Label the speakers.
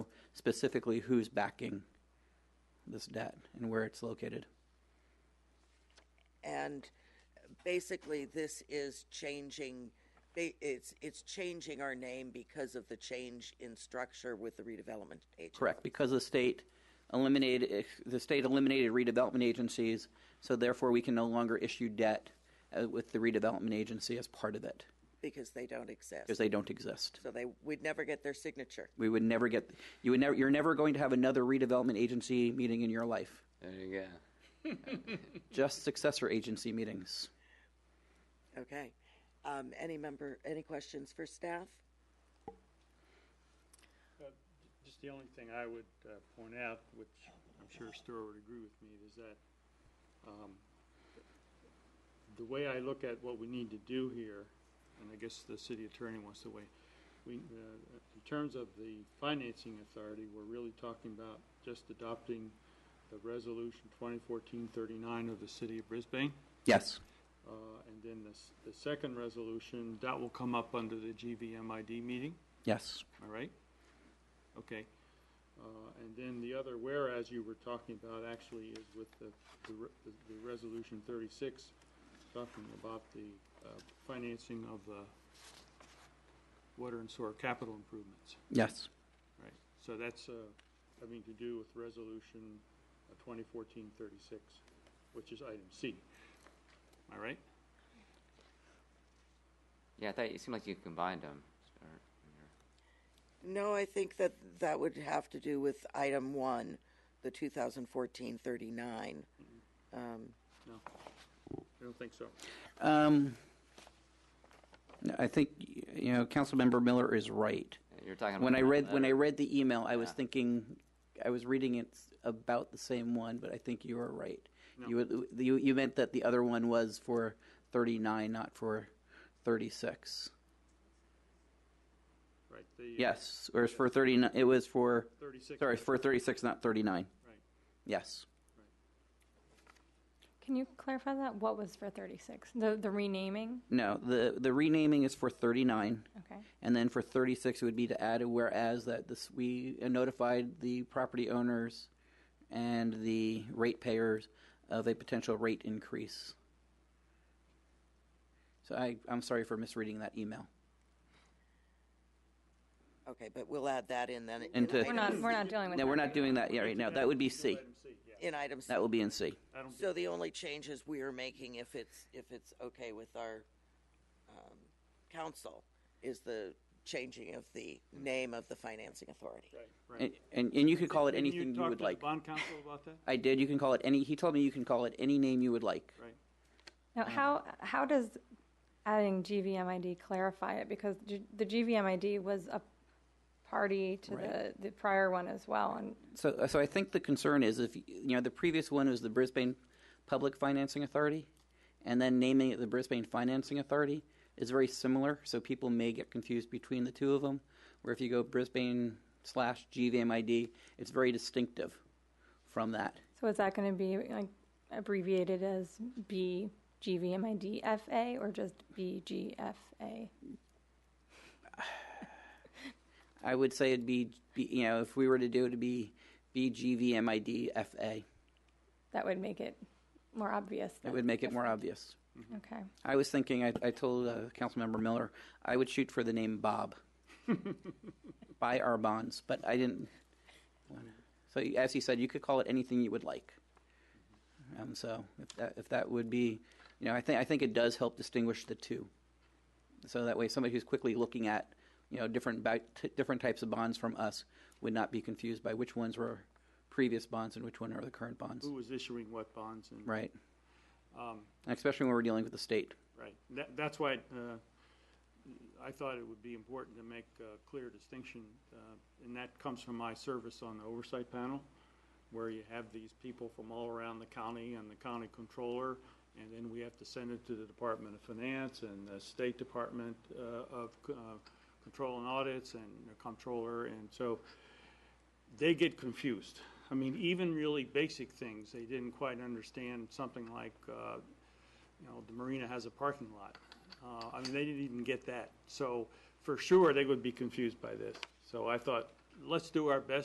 Speaker 1: specifically who's backing this debt and where it's located.
Speaker 2: and basically this is changing ba- it's it's changing our name because of the change in structure with the redevelopment agency.
Speaker 1: Correct, because the state eliminated, the state eliminated redevelopment agencies, so therefore we can no longer issue debt uh, with the redevelopment agency as part of it,
Speaker 2: because they don't exist.
Speaker 1: because they don't exist.
Speaker 2: so they would never get their signature.
Speaker 1: We would never get, you would never, you're never going to have another redevelopment agency meeting in your life,
Speaker 3: There you go.
Speaker 1: just successor agency meetings.
Speaker 2: Okay. Um, any member any questions for staff?
Speaker 4: Just the only thing I would uh, point out, which I'm sure Stuart would agree with me, is that um, the way I look at what we need to do here, and I guess the city attorney wants to weigh, we, uh, in terms of the financing authority, we're really talking about just adopting the resolution 2014-39 of the city of Brisbane.
Speaker 1: Yes.
Speaker 4: Uh, And then the, s- the second resolution, that will come up under the GVMID meeting.
Speaker 1: Yes.
Speaker 4: All right? Okay. Uh, And then the other whereas you were talking about actually is with the, the re- the- the Resolution 36, talking about the uh, financing of the water and sewer capital improvements,
Speaker 1: Yes.
Speaker 4: right? So that's uh, having to do with Resolution uh, 2014-36, which is item C. Am I right?
Speaker 3: Yeah, I thought it seemed like you combined them.
Speaker 2: No, I think that that would have to do with item one, the 2014-39.
Speaker 5: Mm-hmm.
Speaker 2: Um,
Speaker 4: No? I don't think so.
Speaker 1: Um, I think, you know, Councilmember Miller is right.
Speaker 3: You're talking about
Speaker 1: When I
Speaker 3: that
Speaker 1: read when I
Speaker 4: Uh,
Speaker 3: letter.
Speaker 1: read the email, I was
Speaker 3: Yeah.
Speaker 1: thinking, I was reading it about the same one, but I think you were right.
Speaker 4: No.
Speaker 1: You would- you you meant that the other one was for thirty nine, not for thirty six.
Speaker 4: Right? the- uh,
Speaker 1: Yes, or it's for thirty nine. It was for
Speaker 4: 36.
Speaker 1: sorry for thirty six, not thirty nine.
Speaker 4: Right.
Speaker 1: Yes.
Speaker 5: Can you clarify that? What was for 36? The, the renaming?
Speaker 1: No. the The renaming is for thirty nine.
Speaker 5: Okay.
Speaker 1: And then for 36, it would be to add a whereas that this, we notified the property owners and the ratepayers of a potential rate increase. So I, I'm sorry for misreading that email.
Speaker 2: okay, but we'll add that in then. in
Speaker 1: Into-
Speaker 5: We're
Speaker 2: item-
Speaker 5: not, we're not dealing with
Speaker 1: No,
Speaker 5: that.
Speaker 1: we're not doing that yet right now. That would be C.
Speaker 4: Item C, yeah.
Speaker 2: in item C.
Speaker 1: That will be in C.
Speaker 4: I don't
Speaker 2: So the only changes we are making, if it's, if it's okay with our um, council, is the changing of the name of the financing authority.
Speaker 4: Right,
Speaker 1: And,
Speaker 4: right.
Speaker 1: and, and you could call it
Speaker 4: Didn't
Speaker 1: anything you
Speaker 4: talk
Speaker 1: would
Speaker 4: to the
Speaker 1: like.
Speaker 4: Bond counsel about that,
Speaker 1: I did. You can call it any, he told me you can call it any name you would like.
Speaker 4: right?
Speaker 5: Now, how, how does adding GVMID clarify it? Because G- the GVMID was a party to the,
Speaker 1: Right.
Speaker 5: the prior one as well. And
Speaker 1: So, so I think the concern is if, you know, the previous one was the Brisbane Public Financing Authority, and then naming it the Brisbane Financing Authority is very similar, so people may get confused between the two of them. Where if you go Brisbane slash GVMID, it's very distinctive from that.
Speaker 5: so is that going to be like abbreviated as BGVMIDFA or just BGFA?
Speaker 1: I would say it'd be, be you know, if we were to do it, it'd be BGVMIDFA.
Speaker 5: That would make it more obvious.
Speaker 1: It
Speaker 5: than-
Speaker 1: would make it more obvious.
Speaker 5: Okay.
Speaker 1: I was thinking, I, I told uh, Councilmember Miller, I would shoot for the name Bob. Buy our bonds, but I didn't. So, as he said, you could call it anything you would like. Um, so, if that, if that would be, you know, I think I think it does help distinguish the two. So that way, somebody who's quickly looking at, you know, different ba- t- different types of bonds from us would not be confused by which ones were previous bonds and which one are the current bonds.
Speaker 4: Who was issuing what bonds and,
Speaker 1: Right,
Speaker 4: um,
Speaker 1: and especially when we're dealing with the state.
Speaker 4: right. That, that's why, uh, I thought it would be important to make a clear distinction, uh, and that comes from my service on the oversight panel, where you have these people from all around the county and the county controller, and then we have to send it to the Department of Finance and the State Department, uh, of, uh, Control and Audits and the Comptroller, and so, they get confused. I mean, even really basic things, they didn't quite understand something like, uh, you know, the marina has a parking lot. Uh, I mean, they didn't even get that. So for sure, they would be confused by this. So I thought, let's do our best